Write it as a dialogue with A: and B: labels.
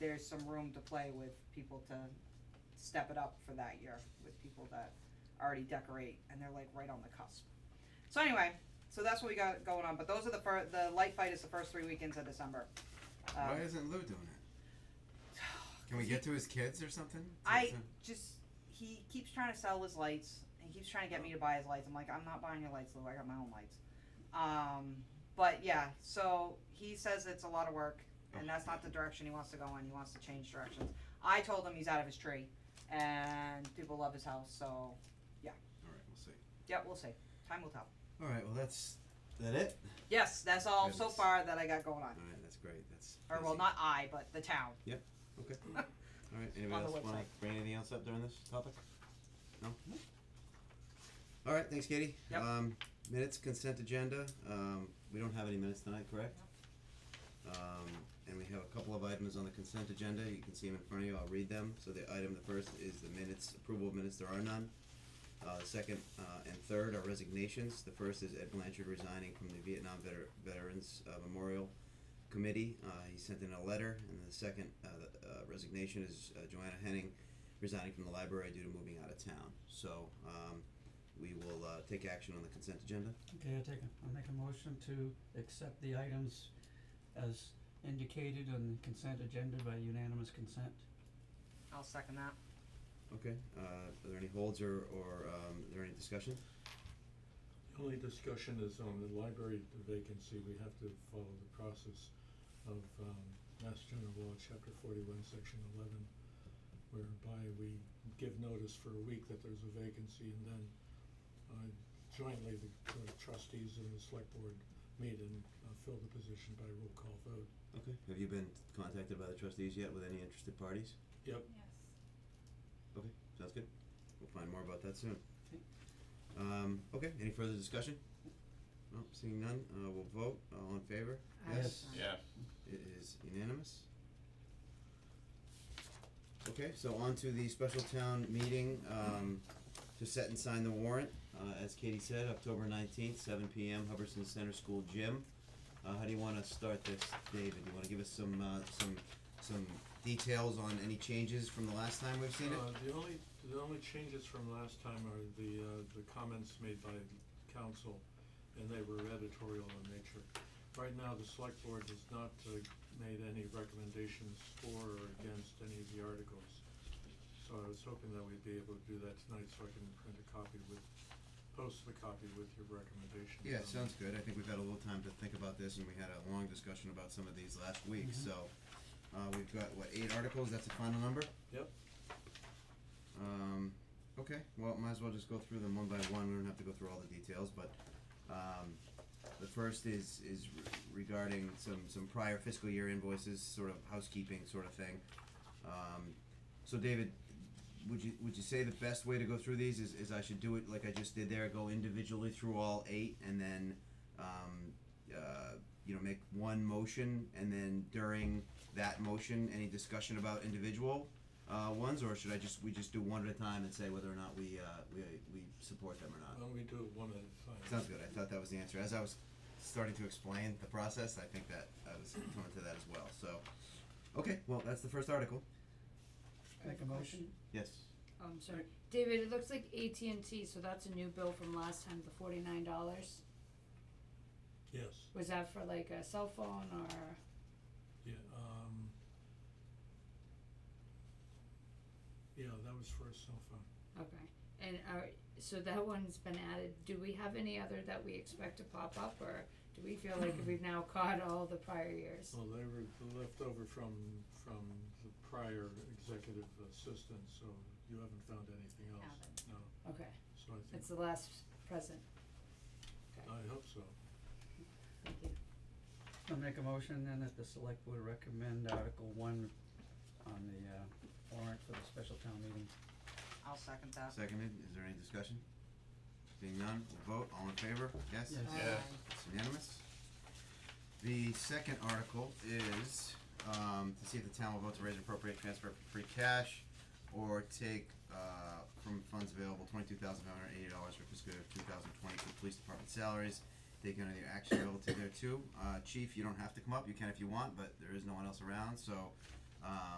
A: there's some room to play with people to step it up for that year with people that already decorate and they're like right on the cusp. So anyway, so that's what we got going on, but those are the fir- the light fight is the first three weekends of December. Um,
B: Why isn't Lou doing it? Can we get to his kids or something? To-
A: I
B: to-
A: just he keeps trying to sell his lights. and He keeps trying to get me to buy his lights. I'm like, I'm not buying your lights, Lou. I got my own lights. Um, but yeah, so he says it's a lot of work, and that's not the direction he wants to go in. He wants to change directions. I told him he's out of his tree, and people love his house. So
B: All right, we'll see.
A: yeah, we'll see. Time will tell.
B: All right, well that's that it.
A: Yes, that's all so
B: Goodness.
A: far that I got going on.
B: All right, that's great. That's
A: Or well,
B: busy.
A: not I, but the town.
B: Okay. All right, anybody
A: On the
B: else wanna
A: website.
B: bring anything else up during this topic? No? All right, thanks Katie.
A: Yep.
B: Um, minutes, consent agenda, um, we don't have any minutes tonight, correct? Um, and we have a couple of items on the consent agenda, you can see them in front of you, I'll read them, so the item, the first is the minutes, approval of minutes, there are none. Uh, the second, uh, and third are resignations, the first is Ed Blanchard resigning from the Vietnam Veter- Veterans uh, Memorial committee. Uh, he sent in a letter, and the second uh, the, uh, resignation is uh, Joanna Henning resigning from the library due to moving out of town. So um, we will uh, take action on the consent agenda.
C: Okay, I take, a- I'll make a motion to accept the items as indicated on the consent agenda by unanimous consent.
A: I'll second that.
B: Okay. Uh, are there any holds or, or um, is there any discussion?
D: The only discussion is on the library vacancy, we have to follow the process of um Mass General Law, Chapter forty-one, Section eleven, whereby we give notice for a week that there's a vacancy and then uh jointly the Board of trustees and the select board meet and uh fill the position by roll call vote.
B: Okay. Have you been contacted by the trustees yet with any interested parties?
D: Yep.
B: Okay. Sounds good. We'll find more about that soon. Um, okay. Any further discussion? No, seeing none, uh, we'll vote. All in favor? Yes.
E: Yeah.
B: It is unanimous. Okay, so on to the special town meeting, um, to set and sign the warrant, uh, as Katie said, October nineteenth, seven P M, Hubbardson Center School Gym. Uh, how do you wanna start this, David? You wanna give us some, uh, some, some details on any changes from the last time we've seen it?
D: Uh, the only, the only changes from last time are the, uh, the comments made by council, and they were editorial in nature. Right now, the select board has not, uh, made any recommendations for or against any of the articles. So I was hoping that we'd be able to do that tonight, so I can print a copy with, post the copy with your recommendations.
B: Yeah,
D: on it.
B: sounds good. I think we've had a little time to think about this and we had a long discussion about some of these last week,
C: Mhm.
B: so. Uh, we've got, what, eight articles? That's the final number?
D: Yep.
B: Um, okay, well, might as well just go through them one by one, we don't have to go through all the details, but, um, the first is, is re- regarding some, some prior fiscal year invoices, sort of housekeeping sort of thing. Um, so David, would you, would you say the best way to go through these is, is I should do it like I just did there, go individually through all eight and then, um, uh, you know, make one motion and then during that motion, any discussion about individual, uh, ones, or should I just, we just do one at a time and say whether or not we, uh, we, we support them or not?
D: Why don't we do it one at a time?
B: Sounds good, I thought that was the answer, as I was starting to explain the process, I think that I was coming to that as well, so, okay, well, that's the first article,
F: Make a motion?
B: yes.
F: Oh, I'm sorry, David, it looks like AT&T, so that's a new bill from last time, the forty-nine dollars,
D: Yes,
F: was that for like a cell phone or?
D: yeah, um. Yeah, that was for a cell phone.
F: Okay, and are, so that one's been added, do we have any other that we expect to pop up, or do we feel like we've now caught all the prior years?
D: Well, they were left over from, from the prior executive assistant, so you haven't found anything else,
F: Haven't.
D: no,
F: Okay,
D: so I think,
F: that's the last present,
D: I hope so.
F: thank you.
C: I'll make a motion then that the select board recommend Article one on the, uh, warrant for the special town meeting.
A: I'll second that.
B: Seconded, is there any discussion? Seeing none, we'll vote, all in favor, yes?
C: Yes.
E: Yeah.
A: Um,
B: It's unanimous. The second article is, um, to see if the town will vote to raise and appropriate transfer from free cash or take, uh, from funds available twenty-two thousand five hundred eighty dollars for fiscal year two thousand twenty for police department salaries. Take any action relative thereto. Uh, chief, you don't have to come up, you can if you want, but there is no one else around, so, um,